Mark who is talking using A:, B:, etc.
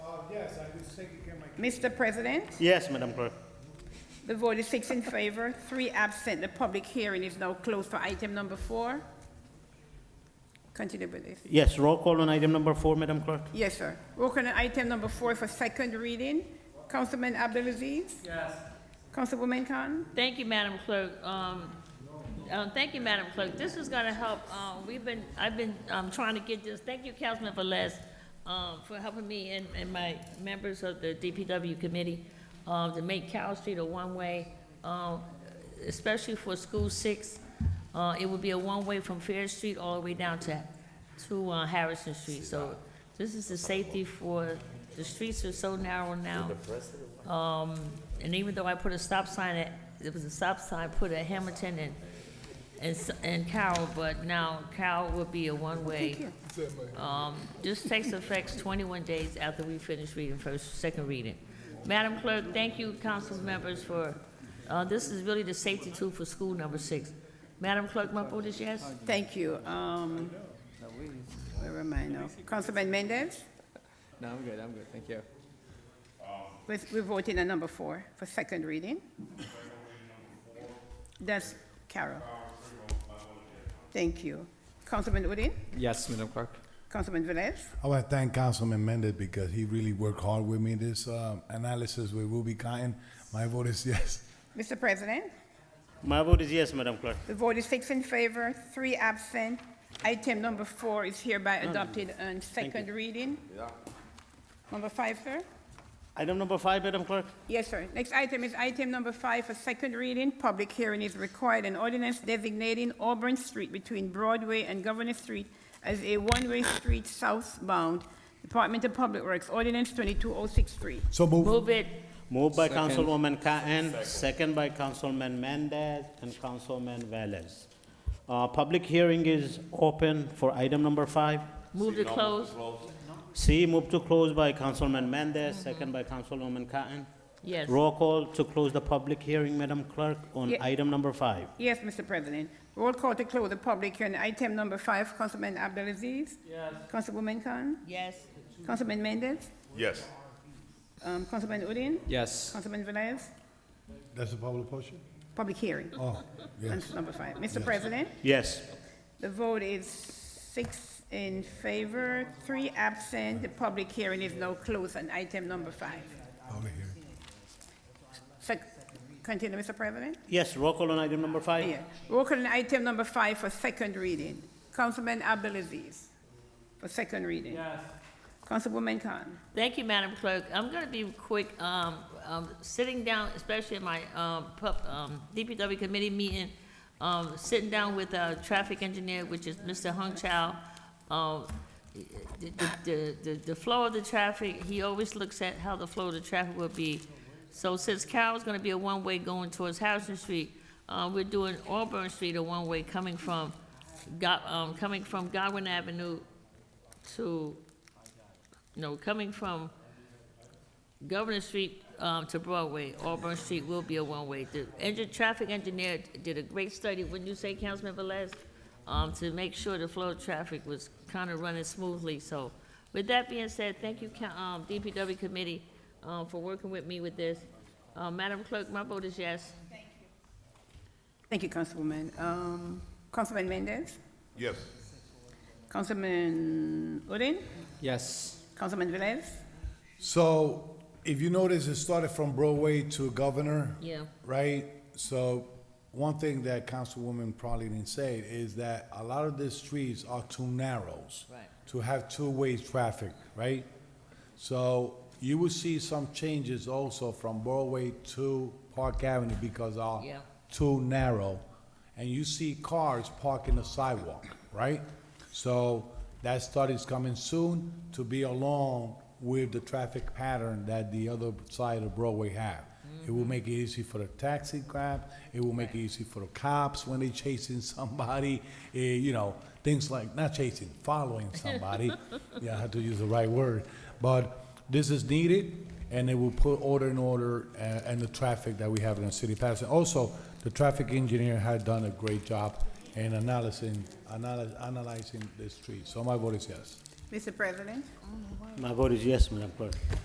A: Yes, I was taking care of my
B: Mr. President,
C: Yes, Madam Clerk.
B: the vote is six in favor, three absent. The public hearing is now closed for item number four. Continue with this.
C: Yes, roll call on item number four, Madam Clerk.
B: Yes, sir. Roll call on item number four for second reading. Councilman Abdulaziz? Yes. Councilwoman Khan?
D: Thank you, Madam Clerk. Um, um, thank you, Madam Clerk. This is gonna help, uh, we've been, I've been, um, trying to get this, thank you, Councilman Velez, um, for helping me and, and my members of the DPW committee, uh, to make Cal Street a one-way, um, especially for School Six. Uh, it would be a one-way from Fair Street all the way down to, to, uh, Harrison Street. So this is the safety for, the streets are so narrow now. Um, and even though I put a stop sign at, it was a stop sign put at Hamilton and, and, S- and Carroll, but now Carroll will be a one-way. Um, this takes effect twenty-one days after we finish reading first, second reading. Madam Clerk, thank you, council members, for, uh, this is really the safety tool for school number six. Madam Clerk, my vote is yes.
B: Thank you. Um, where am I now? Councilman Mendez?
E: No, I'm good, I'm good, thank you.
B: We're, we're voting on number four for second reading. That's Carol. Thank you. Councilman Udine,
E: Yes, Madam Clerk.
B: Councilman Velez,
F: I want to thank Councilman Mendez because he really worked hard with me this um, analysis with Ruby Cotton. My vote is yes.
B: Mr. President,
C: My vote is yes, Madam Clerk.
B: the vote is six in favor, three absent. Item number four is hereby adopted on second reading. Number five, sir?
C: Item number five, Madam Clerk.
B: Yes, sir. Next item is item number five for second reading. Public hearing is required. An ordinance designating Auburn Street between Broadway and Governor Street as a one-way street southbound. Department of Public Works, ordinance 22063.
F: So move.
D: Move it.
C: Moved by
E: Second.
C: Councilwoman Cotton, second by Councilman Mendez and Councilman Velez. Uh, Public hearing is open for item number five.
D: Move to close.
C: C, move to close by Councilman Mendez, second by Councilwoman Cotton.
D: Yes.
C: Roll call to close the public hearing, Madam Clerk, on
B: Ye-
C: item number five.
B: Yes, Mr. President. Roll call to close the public hearing. Item number five, Councilman Abdelaziz. Yes. Councilwoman Khan.
D: Yes.
B: Councilman Mendez.
G: Yes.
B: Um, Councilman Udine.
E: Yes,
B: Councilman Velez.
F: That's a public portion?
B: Public hearing.
F: Oh,
B: on
F: yes.
B: Number five. Mr. President.
C: Yes.
B: The vote is six in favor, three absent. The public hearing is now closed on item number five.
F: Over here.
B: Sec- Continue, Mr. President?
C: Yes, roll call on item number five.
B: Yeah. Roll call on item number five for second reading. Councilman Abdulaziz for second reading. Yes. Councilwoman Khan.
D: Thank you, Madam Clerk. I'm going to be quick. Um, um, Sitting down, especially in my um, pub- um, DPW committee meeting, um, sitting down with our traffic engineer, which is Mr. Hung Chow, um, the- the- the the flow of the traffic, he always looks at how the flow of the traffic will be. So since Carroll's going to be a one-way going towards Harrison Street, uh, we're doing Auburn Street a one-way coming from, Go- um, coming from Godwin Avenue to no, coming from Governor Street um, to Broadway, Auburn Street will be a one-way. The engine, traffic engineer did a great study, wouldn't you say, Councilman Velez? Um, to make sure the flow of traffic was kind of running smoothly, so. With that being said, thank you, Coun- um, DPW committee, um, for working with me with this. Uh, Madam Clerk, my vote is yes.
B: Thank you, Councilwoman. Um, Councilman Mendez,
G: Yes.
B: Councilman Udine,
E: yes,
B: Councilman Velez.
F: So if you notice, it started from Broadway to Governor.
D: Yeah.
F: Right? So one thing that Councilwoman probably didn't say is that a lot of these streets are too narrows.
D: Right.
F: To have two-way traffic, right? So you will see some changes also from Broadway to Park Avenue because are
D: Yeah.
F: too narrow. And you see cars parking the sidewalk, right? So that study's coming soon to be along with the traffic pattern that the other side of Broadway have. It will make it easy for the taxi cab, it will make it easy for the cops when they chasing somebody, eh, you know, things like, not chasing, following somebody. Yeah, I have to use the right word. But this is needed, and it will put order in order uh, and the traffic that we have in the city of Patterson. Also, the traffic engineer had done a great job in analyzing, analy- analyzing the street. So my vote is yes.
B: Mr. President?
C: My vote is yes, Madam Clerk.